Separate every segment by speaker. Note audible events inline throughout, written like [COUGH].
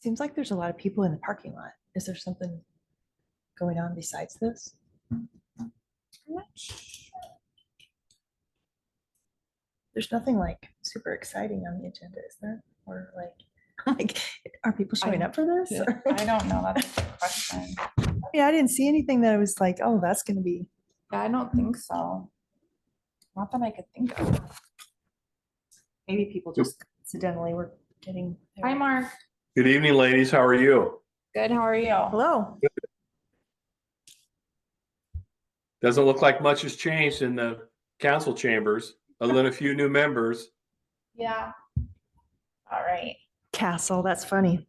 Speaker 1: Seems like there's a lot of people in the parking lot. Is there something going on besides this? There's nothing like super exciting on the agenda, is there? Or like, like, are people showing up for this?
Speaker 2: Yeah.
Speaker 1: Or-
Speaker 3: [LAUGHS] I don't know. That's a good question.
Speaker 1: [LAUGHS] Yeah, I didn't see anything that I was like, oh, that's gonna be,
Speaker 3: Yeah, I don't think so. Not that I could think of.
Speaker 1: maybe people
Speaker 4: Yep.
Speaker 1: just accidentally were getting. their-
Speaker 3: Hi, Mark.
Speaker 4: Good evening, ladies. How are you?
Speaker 3: Good. How are you?
Speaker 1: Hello.
Speaker 4: Doesn't look like much has changed in the council chambers, other than a few new members.
Speaker 3: Yeah. All right.
Speaker 1: Castle, that's funny.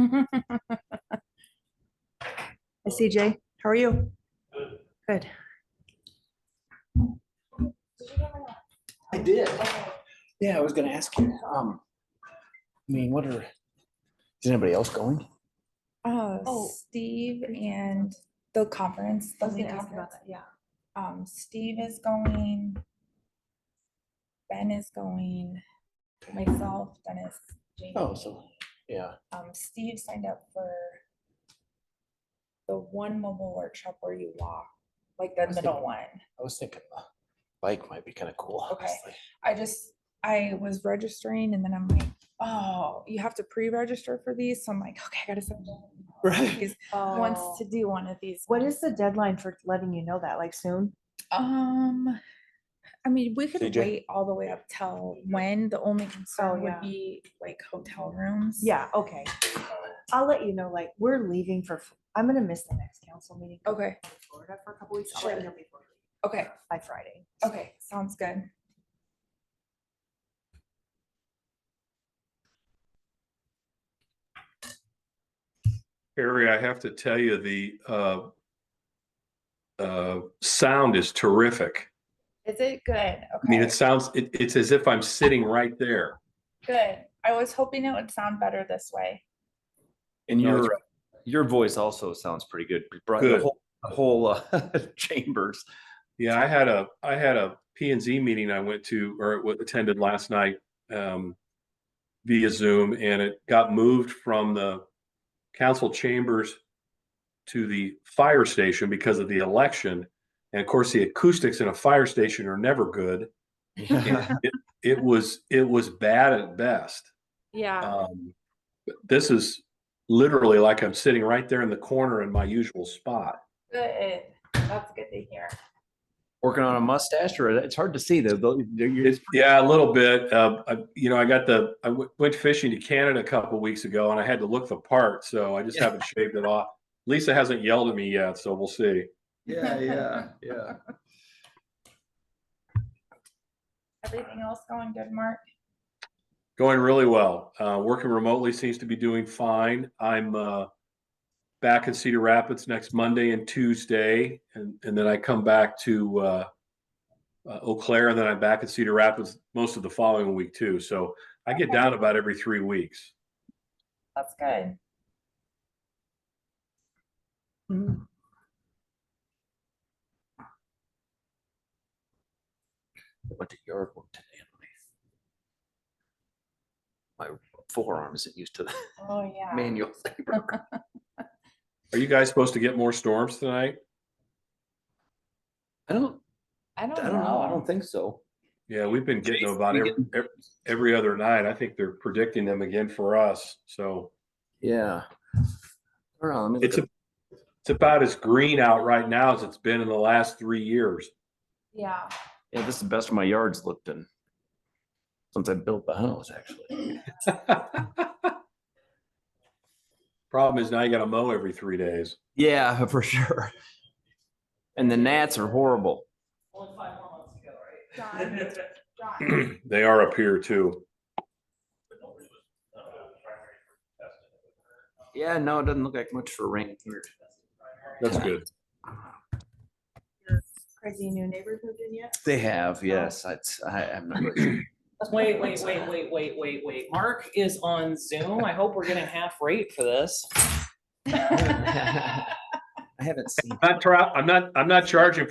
Speaker 1: Hi, CJ. How are you? Good.
Speaker 5: I did. Yeah, I was gonna ask you. Um, I mean, what are, is anybody else going?
Speaker 3: Oh,
Speaker 1: Oh.
Speaker 3: Steve and the conference. the lead conference.
Speaker 1: yeah.
Speaker 3: Um, Steve is going. Ben is going. Myself, Dennis, Jamie.
Speaker 5: Oh, so, yeah,
Speaker 3: um, Steve signed up for the one mobile workshop where you walk, like the
Speaker 5: That's the-
Speaker 3: middle one.
Speaker 5: I was thinking the bike might be kind of cool.
Speaker 3: Okay.
Speaker 5: honestly.
Speaker 3: I just, I was registering and then I'm like, oh, you have to pre-register for these. So I'm like, okay, I gotta send them.
Speaker 5: Right.
Speaker 3: Because wants to do one of these.
Speaker 1: Oh. What is the deadline for letting you know that, like soon?
Speaker 3: Um, I mean, we could
Speaker 5: CJ?
Speaker 3: wait all the way up till when. The only concern
Speaker 1: yeah.
Speaker 3: would be like hotel rooms.
Speaker 1: Yeah, okay. I'll let you know, like, we're leaving for, F- I'm gonna miss the next council meeting. 'cause
Speaker 3: Okay.
Speaker 1: I'm in Florida for a couple weeks. I'll let you know before we leave,
Speaker 3: Okay.
Speaker 1: By Friday.
Speaker 3: Okay. Sounds good.
Speaker 4: Harry, I have to tell you, the uh, uh, sound is terrific.
Speaker 3: Is it good? Okay.
Speaker 4: I mean, it sounds, it, it's as if I'm sitting right there.
Speaker 3: Good. I was hoping it would sound better this way.
Speaker 6: And
Speaker 4: No, it's-
Speaker 6: your your voice also sounds pretty good. Brought
Speaker 4: Good.
Speaker 6: The whole, the whole uh, [LAUGHS] chambers.
Speaker 4: Yeah, I had a, I had a P and Z meeting I went to or wa- attended last night um, via Zoom and it got moved from the council chambers to the fire station because of the election. And of course, the acoustics in a fire station are never good.
Speaker 6: Yeah.
Speaker 4: It was, it was bad at best.
Speaker 3: Yeah.
Speaker 4: Um, but This is literally like I'm sitting right there in the corner in my usual spot.
Speaker 3: Good. That's good to hear.
Speaker 6: Working on a mustache, or it's hard to see though. Though, you're- you're-
Speaker 4: It's, yeah, a little bit. Uh, I, you know, I got the, I w- went fishing to Canada a couple weeks ago and I had to look the part, so I just haven't shaved it off. Lisa hasn't yelled at me yet, so we'll see.
Speaker 6: yeah, yeah, yeah.
Speaker 3: Everything else going good, Mark?
Speaker 4: Going really well. Uh, working remotely seems to be doing fine. I'm uh, back in Cedar Rapids next Monday and Tuesday, and, and then I come back to uh, uh, Eau Claire, and then I'm back in Cedar Rapids most of the following week too. So I get down about every three weeks.
Speaker 3: That's good.
Speaker 5: Went to yard work today. and My my forearm isn't used to the
Speaker 3: Oh, yeah.
Speaker 5: manual labor.
Speaker 4: Are you guys supposed to get more storms tonight?
Speaker 5: I don't,
Speaker 3: I don't
Speaker 5: I don't know. I don't
Speaker 3: know.
Speaker 5: think so.
Speaker 4: Yeah, we've been getting them
Speaker 6: Jason,
Speaker 4: about
Speaker 6: we
Speaker 4: every, ev- every other night. I think they're predicting them again for us. So
Speaker 5: Yeah. Hold on, let me
Speaker 4: it's
Speaker 5: look
Speaker 4: a,
Speaker 5: at-
Speaker 4: it's about as green out right now as it's been in the last three years.
Speaker 3: Yeah.
Speaker 6: Yeah, this is the best my yard's looked in since I built the house. Actually,
Speaker 4: Problem is now you got to mow every three days.
Speaker 6: yeah, [LAUGHS] for sure. And the gnats are horrible.
Speaker 3: John, John,
Speaker 4: they are up here too.
Speaker 6: Yeah, no, it doesn't look like much for rain here.
Speaker 4: That's good.
Speaker 1: Crazy new neighbors moved in yet?
Speaker 6: They have, yes. It's, I, I'm not. really [CLEARS THROAT] sure.
Speaker 7: Wait, wait, wait, wait, wait, wait, wait. Mark is on Zoom. I hope we're getting half rate for this.
Speaker 6: I haven't seen.
Speaker 4: I'm not, tra- I'm not, I'm not charging